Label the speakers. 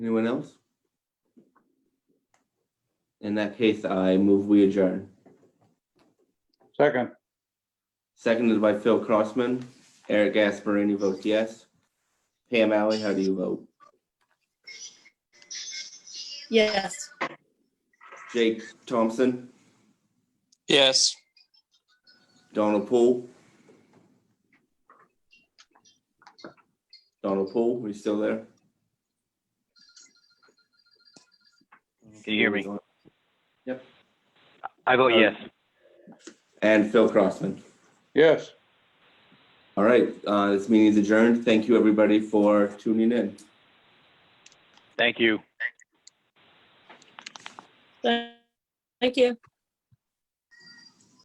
Speaker 1: Anyone else? In that case, I move we adjourn.
Speaker 2: Second,
Speaker 1: Seconded by Phil Crossman. Eric Gasparini votes yes. Pam Alley, how do you vote?
Speaker 3: Yes.
Speaker 1: Jake Thompson,
Speaker 4: Yes.
Speaker 1: Donald Poole? Donald Poole, are you still there?
Speaker 5: Can you hear me?
Speaker 1: Yep.
Speaker 5: I vote
Speaker 1: Uh,
Speaker 5: yes.
Speaker 1: And Phil Crossman.
Speaker 2: yes.
Speaker 1: All right, uh, this meeting is adjourned. Thank you, everybody, for tuning in.
Speaker 5: Thank you.
Speaker 3: Thank you.